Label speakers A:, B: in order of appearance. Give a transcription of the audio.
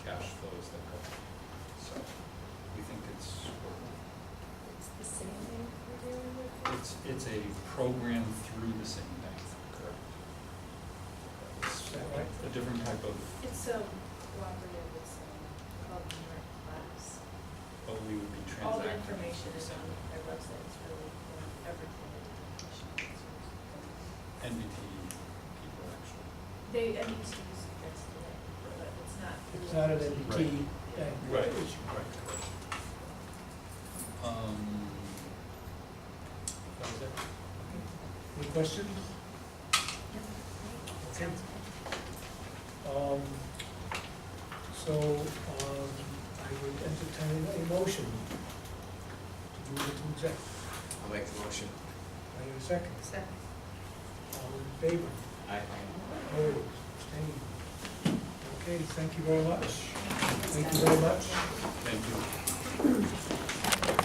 A: program through the same bank. Correct.
B: Is that right?
A: A different type of,
C: It's a cooperative, it's um, called Merit Labs.
A: oh, we would be transacting.
C: All the information is
A: through
C: on their website, it's really, um, everything. that the commission gets.
A: NBT people, actually.
C: They, I mean, to use it next to it, but it's not.
B: It's not an
A: Right.
B: MDT bank.
A: Right.
B: It's-
A: Um, that was it.
B: Any questions? Okay. Um, So, um, I would entertain a motion to move into exec.
D: I'll make the motion.
B: I have a second.
C: Second.
B: All in favor?
D: Aye.
B: Opposed? Abstained? Okay, thank you very much. Thank you very much.
A: Thank you.